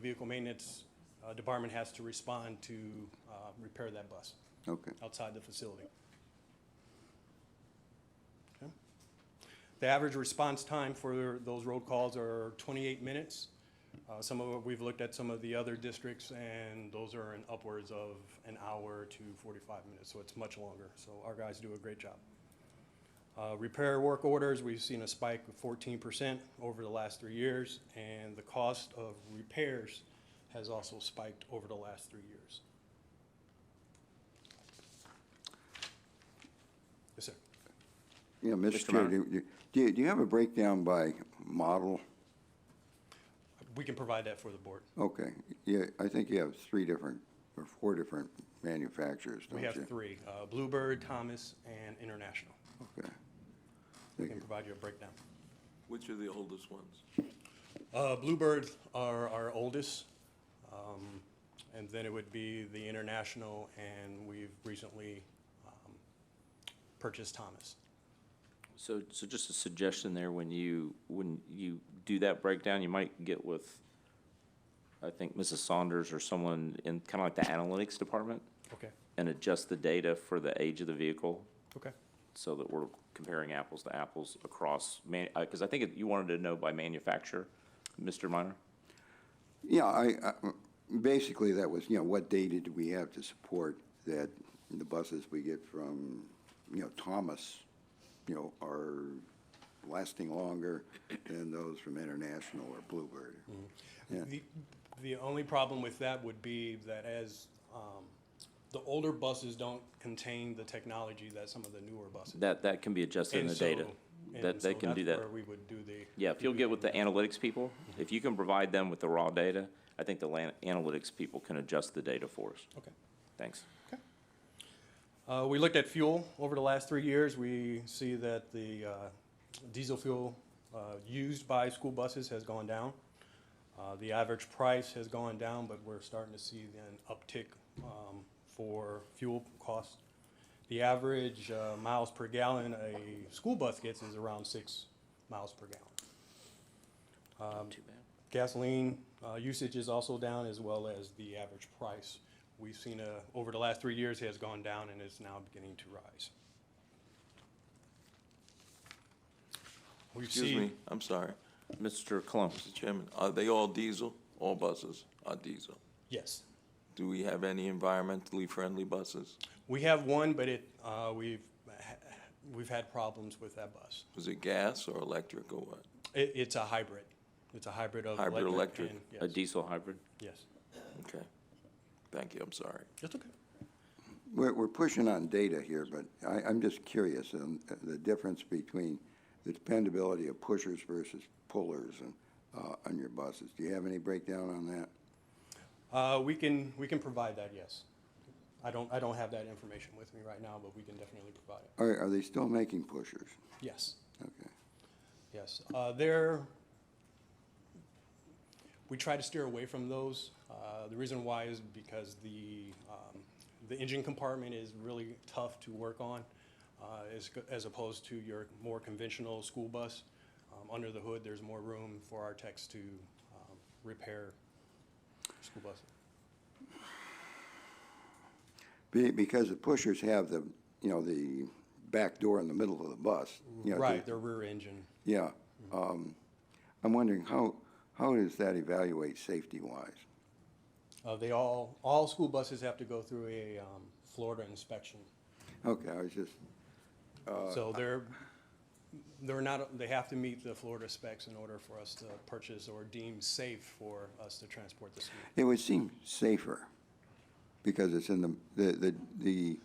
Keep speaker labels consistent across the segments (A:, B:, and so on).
A: vehicle maintenance uh, department has to respond to uh, repair that bus
B: Okay.
A: outside the facility. Okay. The average response time for those road calls are 28 minutes. Uh, Some of, we've looked at some of the other districts, and those are in upwards of an hour to 45 minutes, so it's much longer. So our guys do a great job. Uh, Repair work orders, we've seen a spike of 14% over the last three years, and the cost of repairs has also spiked over the last three years. Yes, sir.
B: Yeah, Mr.
C: Mr.
B: Chair,
C: Mauer?
B: do you, do you- do you have a breakdown by model?
A: We can provide that for the board.
B: Okay, yeah, I think you have three different, or four different manufacturers, don't
A: We
B: you?
A: have three, uh, Bluebird, Thomas, and International.
B: Okay.
A: We
B: Thank
A: can
B: you.
A: provide you a breakdown.
D: Which are the oldest ones?
A: Uh, Bluebird are our oldest, um, and then it would be the International, and we've recently um, purchased Thomas.
C: So, so just a suggestion there, when you, when you do that breakdown, you might get with, I think, Mrs. Saunders or someone in kind of like the analytics department
A: Okay,
C: and adjust the data for the age of the vehicle
A: okay.
C: so that we're comparing apples to apples across, man, uh 'cause cause I think it- you wanted to know by manufacturer, Mr. Minor?
B: Yeah, I, I- basically, that was, you know, what data do we have to support that the buses we get from, you know, Thomas, you know, are lasting longer than those from International or Bluebird? Yeah.
A: The, the only problem with that would be that as, um, the older buses don't contain the technology that some of the newer buses.
C: That, that can be adjusted in
A: And
C: the data.
A: so-
C: That,
A: and so
C: that can do that.
A: That's where we would do the.
C: Yeah, if you'll get with the analytics people, if you can provide them with the raw data, I think the lan- analytics people can adjust the data for us.
A: Okay.
C: Thanks.
A: Uh, We looked at fuel over the last three years. We see that the uh, diesel fuel uh, used by school buses has gone down. Uh, The average price has gone down, but we're starting to see an uptick um, for fuel costs. The average uh, miles per gallon a school bus gets is around six miles per gallon. Um,
C: Too bad.
A: Gasoline uh, usage is also down as well as the average price. We've seen, a- over the last three years, it has gone down and is now beginning to rise. We've
D: Excuse
A: seen-
D: me, I'm sorry,
C: Mr. Cologne,
D: Mr. Chairman, are they all diesel? All buses are diesel.
A: Yes.
D: Do we have any environmentally friendly buses?
A: We have one, but it, uh, we've, ha- we've had problems with that bus.
D: Was it gas or electric or what?
A: It, it's a hybrid. It's a hybrid of
D: Hybrid
A: electric
D: electric.
A: and-
C: a
A: yes,
C: diesel hybrid?
A: Yes.
D: Okay. Thank you, I'm sorry.
A: That's okay.
B: We're, we're pushing on data here, but I, I'm just curious on the difference between the dependability of pushers versus pullers and, uh, on your buses. Do you have any breakdown on that?
A: Uh, We can, we can provide that, yes. I don't, I don't have that information with me right now, but we can definitely provide it.
B: Are, are they still making pushers?
A: Yes.
B: Okay.
A: Yes, uh, there, we try to steer away from those. Uh, The reason why is because the, um, the engine compartment is really tough to work on uh, as, co- as opposed to your more conventional school bus. Um, Under the hood, there's more room for our techs to um, repair school buses.
B: Be, because the pushers have the, you know, the back door in the middle of the bus. you know, to-
A: Right, their rear engine.
B: Yeah. Um, I'm wondering how, how does that evaluate safety-wise?
A: Uh, They all, all school buses have to go through a um, Florida inspection.
B: Okay, I was just,
A: So they're, they're not, they have to meet the Florida specs in order for us to purchase or deem safe for us to transport the student.
B: It would seem safer because it's in the, the, the, the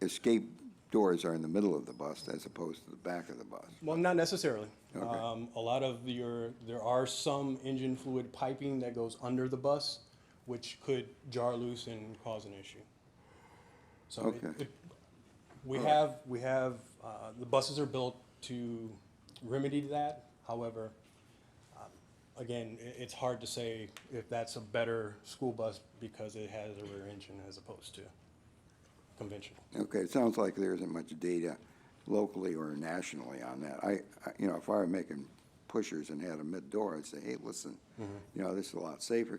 B: escape doors are in the middle of the bus as opposed to the back of the bus.
A: Well, not necessarily.
B: Okay.
A: Um, a lot of your, there are some engine fluid piping that goes under the bus, which could jar loose and cause an issue. So it-
B: Okay.
A: it- we have, we have, uh, the buses are built to remedy that. However, um, again, i it's hard to say if that's a better school bus because it has a rear engine as opposed to conventional.
B: Okay, it sounds like there isn't much data locally or nationally on that. I, I- you know, if I were making pushers and had a mid-door, I'd say, hey, listen, you know, this is a lot safer